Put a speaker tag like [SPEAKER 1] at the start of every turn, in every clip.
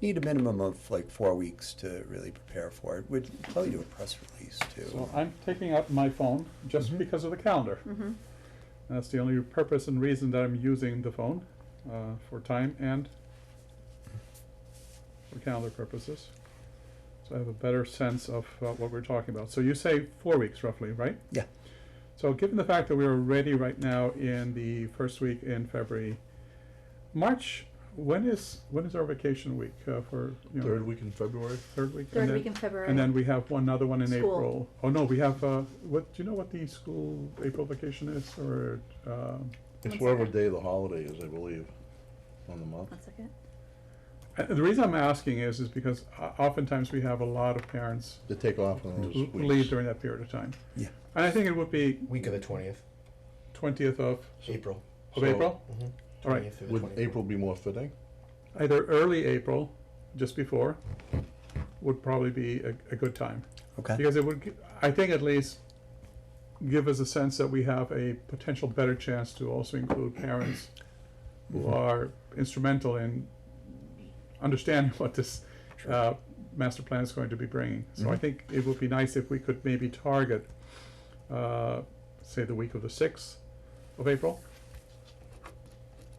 [SPEAKER 1] need a minimum of like four weeks to really prepare for it. We'd probably do a press release too.
[SPEAKER 2] So I'm picking up my phone just
[SPEAKER 1] Mhm.
[SPEAKER 2] because of the calendar.
[SPEAKER 3] Mhm.
[SPEAKER 2] That's the only purpose and reason that I'm using the phone, uh, for time and for calendar purposes. So I have a better sense of uh, what we're talking about. So you say four weeks roughly, right?
[SPEAKER 1] Yeah.
[SPEAKER 2] So given the fact that we're already right now in the first week in February, March, when is, when is our vacation week, uh, for, you know?
[SPEAKER 4] Third week in February?
[SPEAKER 2] Third week? and
[SPEAKER 3] Third
[SPEAKER 2] then-
[SPEAKER 3] week in February.
[SPEAKER 2] And then we have one other one in
[SPEAKER 3] School.
[SPEAKER 2] April. Oh, no, we have, uh, what, do you know what the school April vacation is, or, um,
[SPEAKER 4] It's
[SPEAKER 3] One
[SPEAKER 4] whatever
[SPEAKER 3] second.
[SPEAKER 4] day the holiday is, I believe, on the month.
[SPEAKER 3] One second.
[SPEAKER 2] uh, the reason I'm asking is, is because o- oftentimes we have a lot of parents
[SPEAKER 4] They take off on those
[SPEAKER 2] who
[SPEAKER 4] weeks.
[SPEAKER 2] who leave during that period of time.
[SPEAKER 1] Yeah.
[SPEAKER 2] And I think it would be
[SPEAKER 5] Week of the twentieth,
[SPEAKER 2] twentieth of,
[SPEAKER 5] April.
[SPEAKER 2] of
[SPEAKER 4] So,
[SPEAKER 2] April,
[SPEAKER 5] Mhm.
[SPEAKER 2] All right.
[SPEAKER 5] 20th through the
[SPEAKER 4] Would
[SPEAKER 5] 24th.
[SPEAKER 4] April be more fitting?
[SPEAKER 2] either early April, just before, would probably be a, a good time.
[SPEAKER 1] Okay,
[SPEAKER 2] Because it would, gi- I think at least, give us a sense that we have a potential better chance to also include parents who are instrumental in understanding what this uh, master plan is going to be bringing. So I
[SPEAKER 1] Mhm.
[SPEAKER 2] think it would be nice if we could maybe target, uh, say, the week of the sixth of April.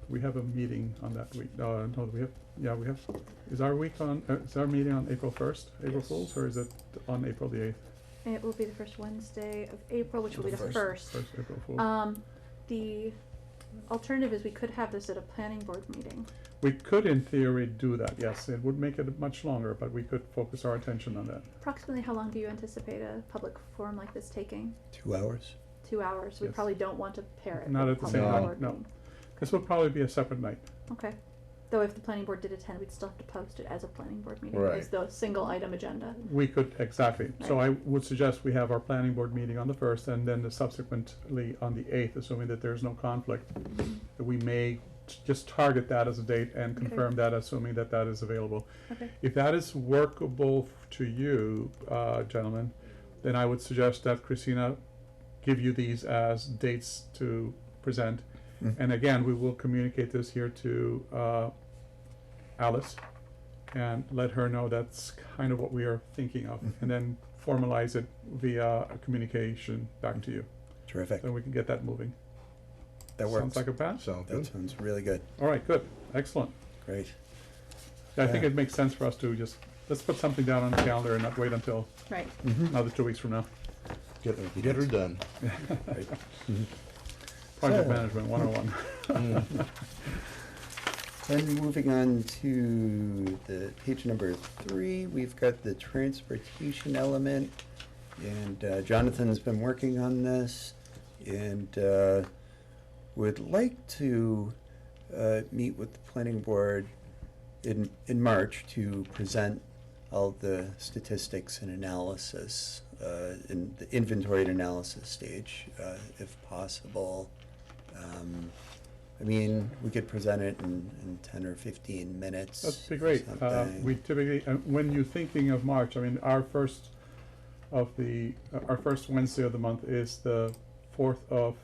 [SPEAKER 2] We have a meeting on that week, uh, no, we have, yeah, we have, is our week on, uh, is our meeting on April first, April
[SPEAKER 5] Yes.
[SPEAKER 2] Fools, or is it on April the eighth?
[SPEAKER 3] It will be the first Wednesday of April, which will be the
[SPEAKER 5] The
[SPEAKER 3] first.
[SPEAKER 2] First April Fools.
[SPEAKER 3] Um, the alternative is we could have this at a planning board meeting.
[SPEAKER 2] We could in theory do that, yes, it would make it much longer, but we could focus our attention on that.
[SPEAKER 3] Approximately how long do you anticipate a public forum like this taking?
[SPEAKER 1] two hours.
[SPEAKER 3] Two hours. We
[SPEAKER 2] Yes.
[SPEAKER 3] probably don't want to pair it.
[SPEAKER 2] Not at
[SPEAKER 3] with
[SPEAKER 2] the
[SPEAKER 3] public
[SPEAKER 2] same
[SPEAKER 4] No.
[SPEAKER 3] board
[SPEAKER 2] time, no.
[SPEAKER 3] meeting.
[SPEAKER 2] This would probably be a separate night.
[SPEAKER 3] Okay. Though if the planning board did attend, we'd still have to post it as a planning board meeting,
[SPEAKER 4] Right.
[SPEAKER 3] as the single item agenda.
[SPEAKER 2] We could, exactly. So
[SPEAKER 3] Right.
[SPEAKER 2] I would suggest we have our planning board meeting on the first and then the subsequently on the eighth, assuming that there's no conflict. That We may t- just target that as a date and
[SPEAKER 3] Okay.
[SPEAKER 2] confirm that, assuming that that is available.
[SPEAKER 3] Okay.
[SPEAKER 2] If that is workable f- to you, uh, gentlemen, then I would suggest that Christina give you these as dates to present.
[SPEAKER 1] Mm.
[SPEAKER 2] And again, we will communicate this here to uh, Alice and let her know that's kind of what we are thinking of.
[SPEAKER 1] Mm-hmm.
[SPEAKER 2] And then formalize it via a communication back to you.
[SPEAKER 1] Terrific.
[SPEAKER 2] Then we can get that moving.
[SPEAKER 1] Mm-hmm. That works.
[SPEAKER 2] Sounds like a plan?
[SPEAKER 4] Sound
[SPEAKER 1] That
[SPEAKER 4] good?
[SPEAKER 1] sounds really good.
[SPEAKER 2] All right, good, excellent.
[SPEAKER 1] Great.
[SPEAKER 2] I think
[SPEAKER 1] Yeah.
[SPEAKER 2] it makes sense for us to just, let's put something down on the calendar and not wait until
[SPEAKER 3] Right.
[SPEAKER 2] Mm-hmm. another two weeks from now.
[SPEAKER 4] Get, get her done.
[SPEAKER 2] Project
[SPEAKER 1] So-
[SPEAKER 2] management one oh one.
[SPEAKER 1] Then moving on to the page number three, we've got the transportation element. And uh, Jonathan's been working on this and uh, would like to uh, meet with the planning board in, in March to present all the statistics and analysis, uh, in the inventory and analysis stage, uh, if possible. Um, I mean, we could present it in, in ten or fifteen minutes.
[SPEAKER 2] That'd be
[SPEAKER 1] or
[SPEAKER 2] great. Uh,
[SPEAKER 1] something.
[SPEAKER 2] we typically, uh, when you're thinking of March, I mean, our first of the, uh, our first Wednesday of the month is the fourth of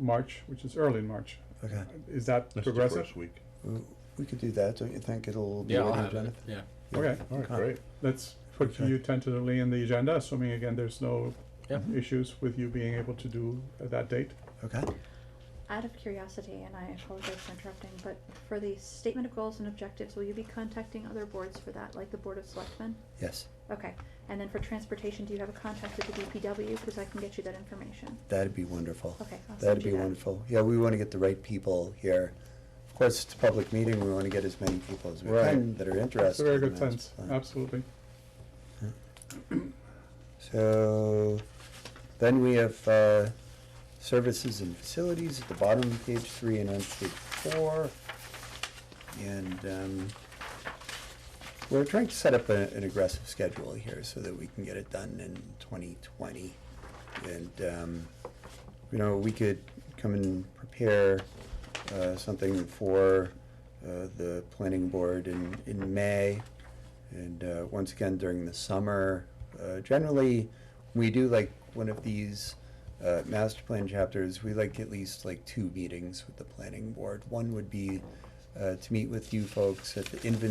[SPEAKER 2] March, which is early in March. Uh,
[SPEAKER 1] Okay,
[SPEAKER 2] Is that
[SPEAKER 4] That's the
[SPEAKER 2] progressive?
[SPEAKER 4] first week.
[SPEAKER 1] W- we could do that, don't you think it'll be
[SPEAKER 6] Yeah, I'll
[SPEAKER 1] ready,
[SPEAKER 6] have it,
[SPEAKER 1] Jonathan?
[SPEAKER 6] yeah.
[SPEAKER 1] Yeah.
[SPEAKER 2] Okay,
[SPEAKER 4] All right,
[SPEAKER 1] Okay.
[SPEAKER 4] great.
[SPEAKER 2] let's put
[SPEAKER 1] Okay.
[SPEAKER 2] you tentatively in the agenda, assuming again, there's no
[SPEAKER 6] Yeah.
[SPEAKER 2] issues with you being able to do at that date.
[SPEAKER 1] Okay,
[SPEAKER 3] Out of curiosity, and I apologize for interrupting, but for the statement of goals and objectives, will you be contacting other boards for that, like the Board of Selectmen?
[SPEAKER 1] yes,
[SPEAKER 3] Okay, and then for transportation, do you have a contact with the DPW, because I can get you that information?
[SPEAKER 1] that'd be wonderful.
[SPEAKER 3] Okay, I'll
[SPEAKER 1] That'd
[SPEAKER 3] send
[SPEAKER 1] be
[SPEAKER 3] you that.
[SPEAKER 1] wonderful. Yeah, we want to get the right people here. Of course, it's a public meeting, we want to get as many people as we
[SPEAKER 4] Right.
[SPEAKER 1] can that are interested.
[SPEAKER 2] That's a very
[SPEAKER 1] in
[SPEAKER 2] good
[SPEAKER 1] this
[SPEAKER 2] sense,
[SPEAKER 1] plan.
[SPEAKER 2] absolutely.
[SPEAKER 1] So, then we have, uh, services and facilities at the bottom of page three and on page four. And, um, we're trying to set up a- an aggressive schedule here so that we can get it done in twenty twenty. And, um, you know, we could come and prepare, uh, something for, uh, the planning board in, in May. And uh, once again, during the summer, uh, generally, we do like one of these uh, master plan chapters, we like at least like two meetings with the planning board. One would be uh, to meet with you folks at the inventory